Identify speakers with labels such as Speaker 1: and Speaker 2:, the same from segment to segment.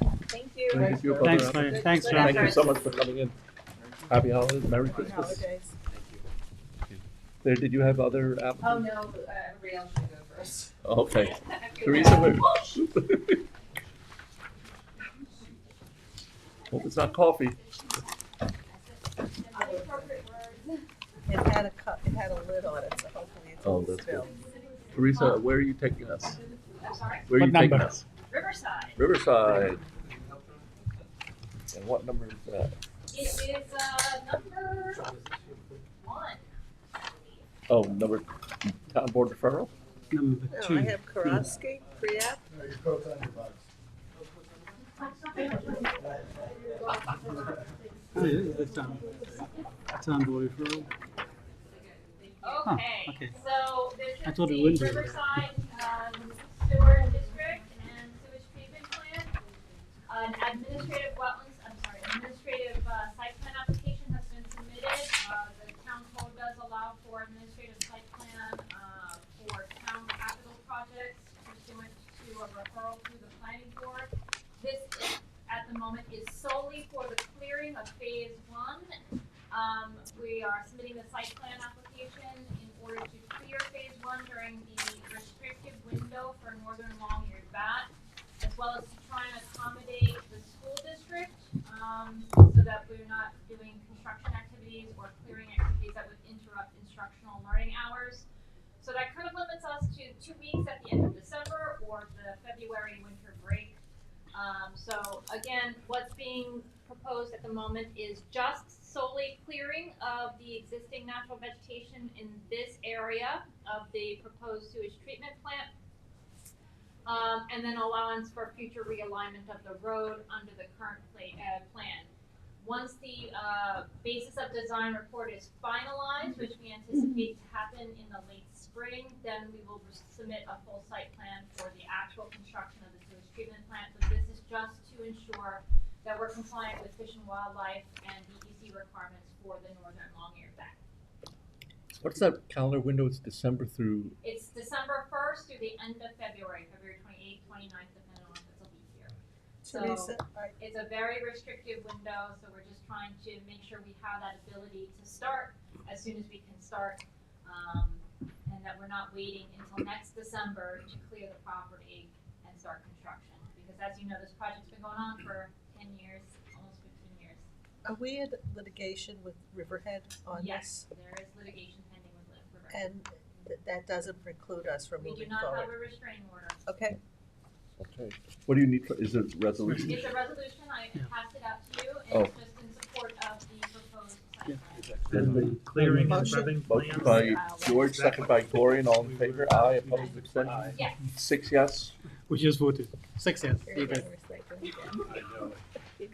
Speaker 1: you.
Speaker 2: Thank you.
Speaker 3: Thanks, Lynn. Thanks, John.
Speaker 2: Thank you so much for coming in. Happy holidays, Merry
Speaker 1: Happy
Speaker 2: Christmas.
Speaker 1: holidays.
Speaker 2: There, did you have other applicants?
Speaker 4: Oh, no, but, uh, everybody else should go first.
Speaker 2: Okay,
Speaker 4: Have a good
Speaker 2: Teresa,
Speaker 4: night.
Speaker 2: wait. Hope it's not coffee.
Speaker 1: It had a cup, it had a lid on it, so hopefully it's
Speaker 2: Oh,
Speaker 1: all
Speaker 2: that's
Speaker 1: spilled.
Speaker 2: Teresa, where are you taking us?
Speaker 4: I'm sorry,
Speaker 2: Where are
Speaker 3: What
Speaker 2: you taking
Speaker 3: number?
Speaker 2: us?
Speaker 4: Riverside.
Speaker 2: Riverside. And what number is that?
Speaker 4: It is, uh, number one.
Speaker 2: Oh, number, town board referral?
Speaker 3: Number
Speaker 1: No, Oh, I
Speaker 3: two.
Speaker 1: have Karofsky, pre-app.
Speaker 3: Oh, yeah, that's on, that's on board referral.
Speaker 4: Okay,
Speaker 3: okay.
Speaker 4: so this
Speaker 3: I
Speaker 4: is
Speaker 3: thought it
Speaker 4: the
Speaker 3: wouldn't be.
Speaker 4: Riverside, um, sewer district and sewage treatment plant. An administrative wetlands, I'm sorry, administrative, uh, site plan application has been submitted. Uh, the town code does allow for administrative site plan, uh, for town capital projects pursuant to a referral through the planning board. This is, at the moment, is solely for the clearing of phase one um, we are submitting the site plan application in order to clear phase one during the restricted window for northern long-eared bat, as well as to try and accommodate the school district, um, so that we're not doing construction activities or clearing activities that would interrupt instructional learning hours. So that kind of limits us to two weeks at the end of December or the February winter break. Um, so again, what's being proposed at the moment is just solely clearing of the existing natural vegetation in this area of the proposed sewage treatment plant. Um, and then allowance for future realignment of the road under the current pla- uh, plan. Once the, uh, basis of design report is finalized, which we anticipate to happen in the late spring, then we will submit a full site plan for the actual construction of the sewage treatment plant. But this is just to ensure that we're compliant with Fish and Wildlife and DEC requirements for the northern long-eared bat.
Speaker 2: What's that calendar window? It's December through,
Speaker 4: It's December first through the end of February, February twenty-eighth, twenty-ninth, depending on if it's a leap year. So-
Speaker 1: Teresa, I-
Speaker 4: It's a very restrictive window, so we're just trying to make sure we have that ability to start as soon as we can start. Um, and that we're not waiting until next December to clear the property and start construction. Because as you know, this project's been going on for ten years, almost fifteen years.
Speaker 1: are uh, we in litigation with Riverhead on
Speaker 4: Yes,
Speaker 1: this?
Speaker 4: there is litigation pending with Liv River.
Speaker 1: And th- that doesn't preclude us from
Speaker 4: We do
Speaker 1: moving
Speaker 4: not have
Speaker 1: forward?
Speaker 4: a restraining order.
Speaker 1: Okay,
Speaker 2: okay. What do you need, for? is it resolution?
Speaker 4: It's a resolution, I
Speaker 3: Yeah.
Speaker 4: passed it out to you,
Speaker 2: Oh.
Speaker 4: and it's just in support of the proposed
Speaker 3: Yeah.
Speaker 4: site plan.
Speaker 2: Then
Speaker 5: Clearing and
Speaker 1: Motion.
Speaker 5: prepping
Speaker 2: Motion
Speaker 5: plans.
Speaker 2: by George, second by Gloria, and all in favor, aye, opposed, extension,
Speaker 4: Yes,
Speaker 2: six yes.
Speaker 3: We just voted. Six yes.
Speaker 1: here
Speaker 3: You
Speaker 1: it is.
Speaker 3: bet.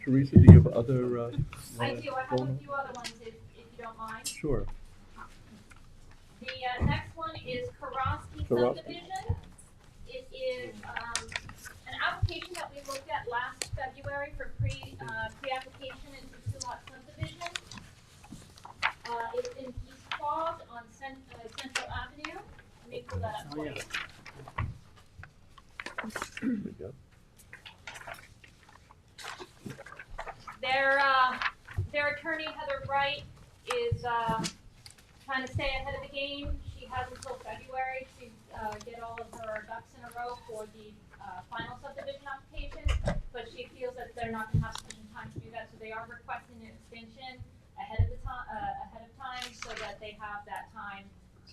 Speaker 2: Teresa, do you have other, uh?
Speaker 4: I do, I have
Speaker 2: Roll.
Speaker 4: a few other ones if, if you don't mind.
Speaker 2: Sure.
Speaker 4: The uh, next one is Karofsky
Speaker 2: Karofsky.
Speaker 4: subdivision. It is um, an application that we looked at last February for pre, uh, pre-application into two-lot subdivision. Uh, It's in East Quogue on Cent- uh, Central Avenue. Let me pull that up
Speaker 3: Oh,
Speaker 4: for
Speaker 3: yeah.
Speaker 4: you.
Speaker 2: There we go.
Speaker 4: Their, uh, their attorney Heather Wright is, uh, trying to stay ahead of the game. She has until February to, uh, get all of her ducks in a row for the, uh, final subdivision application. But she feels that they're not gonna have sufficient time to do that, so they are requesting an extension ahead of the time, uh, ahead of time so that they have that time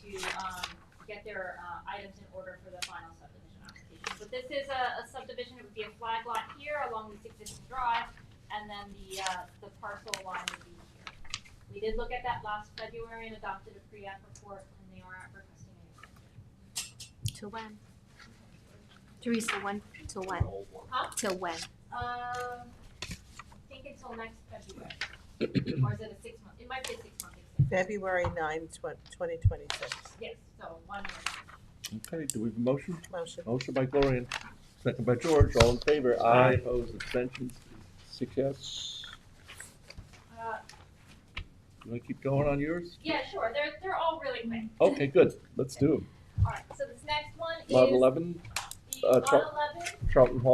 Speaker 4: to, um, get their, uh, items in order for the final subdivision application. But this is a, a subdivision, it would be a flag lot here along this existing drive and then the, uh, the parcel line would be here. We did look at that last February and adopted a pre-app report, and they are requesting an extension.
Speaker 6: Till when? Teresa, when, till when?
Speaker 4: Huh?
Speaker 6: Till when?
Speaker 4: Um, I think until next February, or is it a six-month, it might be a six-month extension,
Speaker 1: February ninth, twenty twenty-six,
Speaker 4: yes, so one more.
Speaker 2: Okay, do we have a motion?
Speaker 1: motion.
Speaker 2: Motion by Gloria, second by George, all in favor, aye, opposed, abstentions, six yes.
Speaker 4: Uh,
Speaker 2: You wanna keep going on yours?
Speaker 4: yeah, sure, they're, they're all really quick.
Speaker 2: Okay, good, let's do 'em.
Speaker 4: All right, so this next one is
Speaker 2: Lot eleven,
Speaker 4: the
Speaker 2: uh,
Speaker 4: lot
Speaker 2: Char-
Speaker 4: eleven
Speaker 2: Charlton Hall